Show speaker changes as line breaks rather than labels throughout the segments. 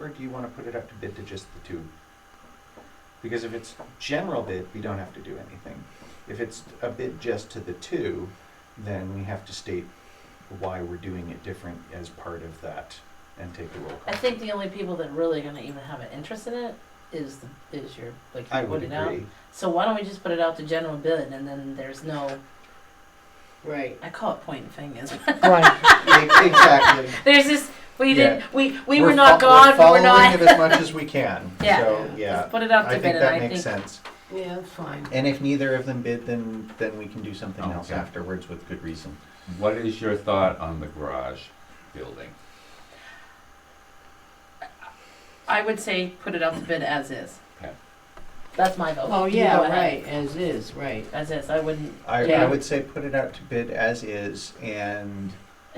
or do you want to put it up to bid to just the two? Because if it's general bid, we don't have to do anything. If it's a bid just to the two, then we have to state why we're doing it different as part of that and take the roll call.
I think the only people that really are gonna even have an interest in it is, the is your, like,
I
you
would
put it out.
agree.
So why don't we just put it out to general bid and then there's no,
Right.
I call it pointing fingers.
Right.
E- Exactly.
There's this,
Yeah.
we didn't, we, we
We're
were not
fo-
God, we were
Following it
not.
as much as we can,
Yeah.
so, yeah.
Let's put it out
I
to
think
bid and
that
I
makes
think,
sense.
Yeah, that's fine.
And if neither of them bid, then, then we can do something else
Okay.
afterwards with good reason.
What is your thought on the garage building?
I would say put it out to bid as is.
Okay.
That's my vote.
Oh,
You
yeah,
go ahead.
right, as is, right.
As is, I wouldn't,
I, I
Yeah.
would say put it out to bid as is and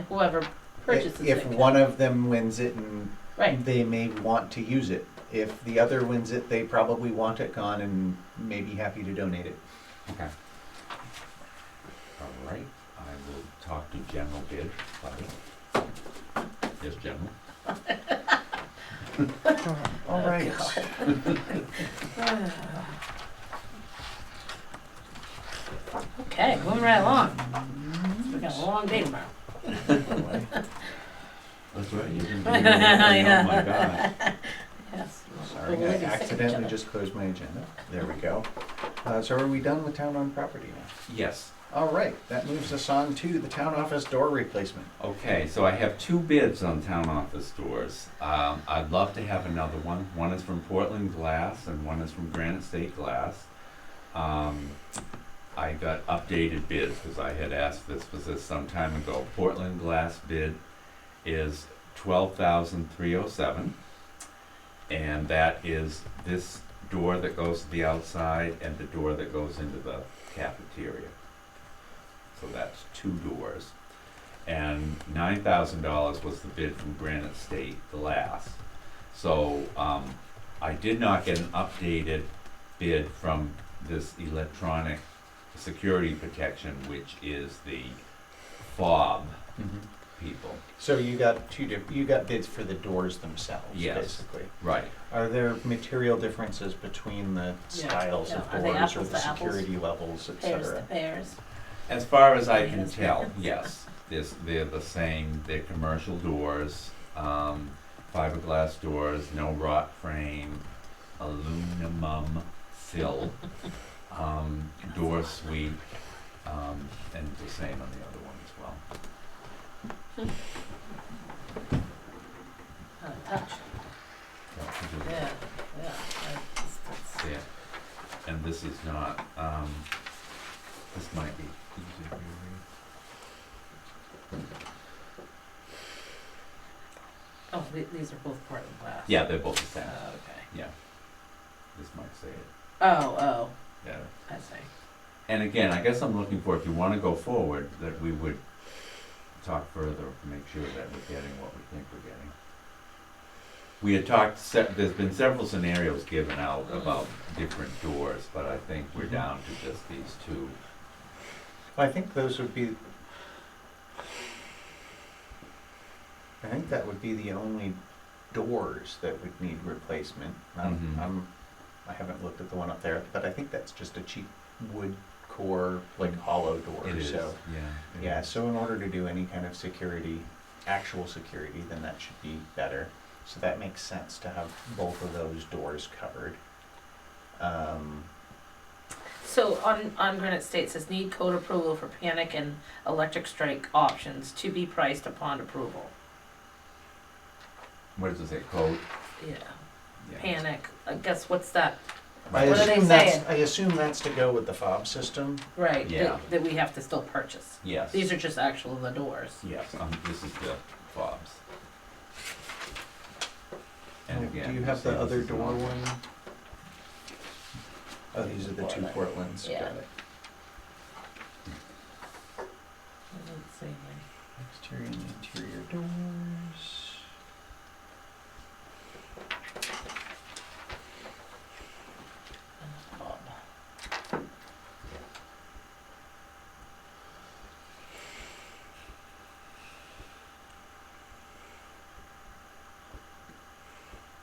whoever
i-
purchases it.
if
can-
one of them wins it and
Right,
they may want to use it. If the other wins it, they probably want it gone and may be happy to donate it.
Okay. All right, I will talk to general bid, buddy. Yes, general.
Oh,
All right.
okay, moving right along. We got a long day tomorrow.
That's right, you didn't do anything, oh my god.
Yes.
Sorry,
We'll
I
live and sick of each
accidentally
other.
just closed my agenda. There we go. Uh, so are we done with town owned property now?
Yes,
All right, that moves us on to the town office door replacement.
okay, so I have two bids on town office doors. Um, I'd love to have another one, one is from Portland Glass and one is from Granite State Glass. Um, I got updated bids, because I had asked this, was this some time ago. Portland Glass bid is twelve thousand three oh seven. And that is this door that goes to the outside and the door that goes into the cafeteria. So that's two doors. And nine thousand dollars was the bid from Granite State Glass. So, um, I did not get an updated bid from this electronic security protection, which is the fob people.
So you got two diff- you got bids for the doors themselves,
Yes.
basically.
Right.
Are there material differences between the
Yeah.
styles
Yeah.
of
Are they
doors or
apples
the
to apples?
security levels, et
Pairs to
cetera?
pairs.
As far as I can tell, yes. This, they're the same, they're commercial doors, um, fiberglass doors, no wrought frame, aluminum sill, um, door sweep, um, and the same on the other one as well.
Out of uh, touch.
Yeah.
Yeah, yeah. I- it's- it's-
Yeah, and this is not, um, this might be easier to read.
Oh, the- these are both Portland glass.
Yeah, they're both the
Oh,
same,
okay.
this might say it
Oh, oh,
better.
I see.
And again, I guess I'm looking for, if you wanna go forward, that we would talk further, make sure that we're getting what we think we're getting. We had talked, se- there's been several scenarios given out about different doors, but I think we're
Mm-hmm.
down to just these two.
Well, I think those would be. I think that would be the only doors that would need replacement. I'm,
Mhm.
I'm, I haven't looked at the one up there, but I think that's just a cheap wood core, like hollow door.
Mm. It is, yeah.
So
it
yeah,
is.
so in order to do any kind of security, actual security, then that should be better. So that makes sense to have both of those doors covered. Um,
So on, on Granite State says need code approval for panic and electric strike options to be priced upon approval.
What does it say, code?
Yeah,
Yeah.
panic, I guess what's that,
I
What are they
assume that's,
saying?
I assume that's to go with the fob system.
right,
Yeah.
that, that we have to still purchase.
Yes.
These are just actual the doors.
Yes, um, this is the Bob's.
Oh,
And again.
Do you have
see
the
this
other
is
door
all-
one? Oh, these are the two Portlands,
Yeah.
got it.
I didn't see any.
Exterior and
Oh,